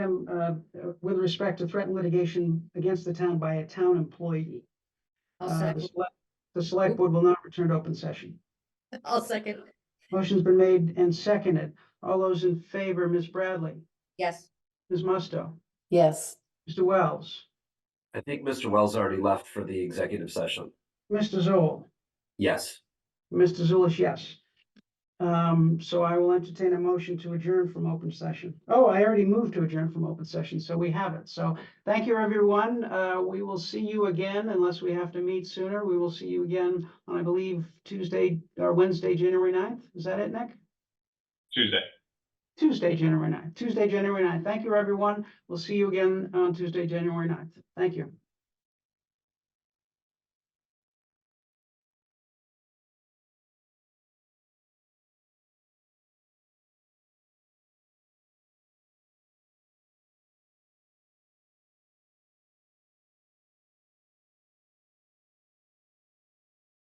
um, uh, with respect to threatened litigation against the town by a town employee. I'll Uh, the second, select- The select board will not return to open session. I'll second, Motion's been made and seconded. All those in favor, Ms. Bradley, yes. Ms. Musto, Yes, Mr. Wells, I think Mr. Wells already left for the executive session. Mr. Zoll, Yes. Mr. Zulish, yes. Um, so I will entertain a motion to adjourn from open session. Oh, I already moved to adjourn from open session, so we have it. So thank you, everyone. Uh, we will see you again unless we have to meet sooner. We will see you again on, I believe, Tuesday or Wednesday, January 9th. Is that it, Nick? Tuesday. Tuesday, January 9th. Tuesday, January 9th. Thank you, everyone. We'll see you again on Tuesday, January 9th. Thank you.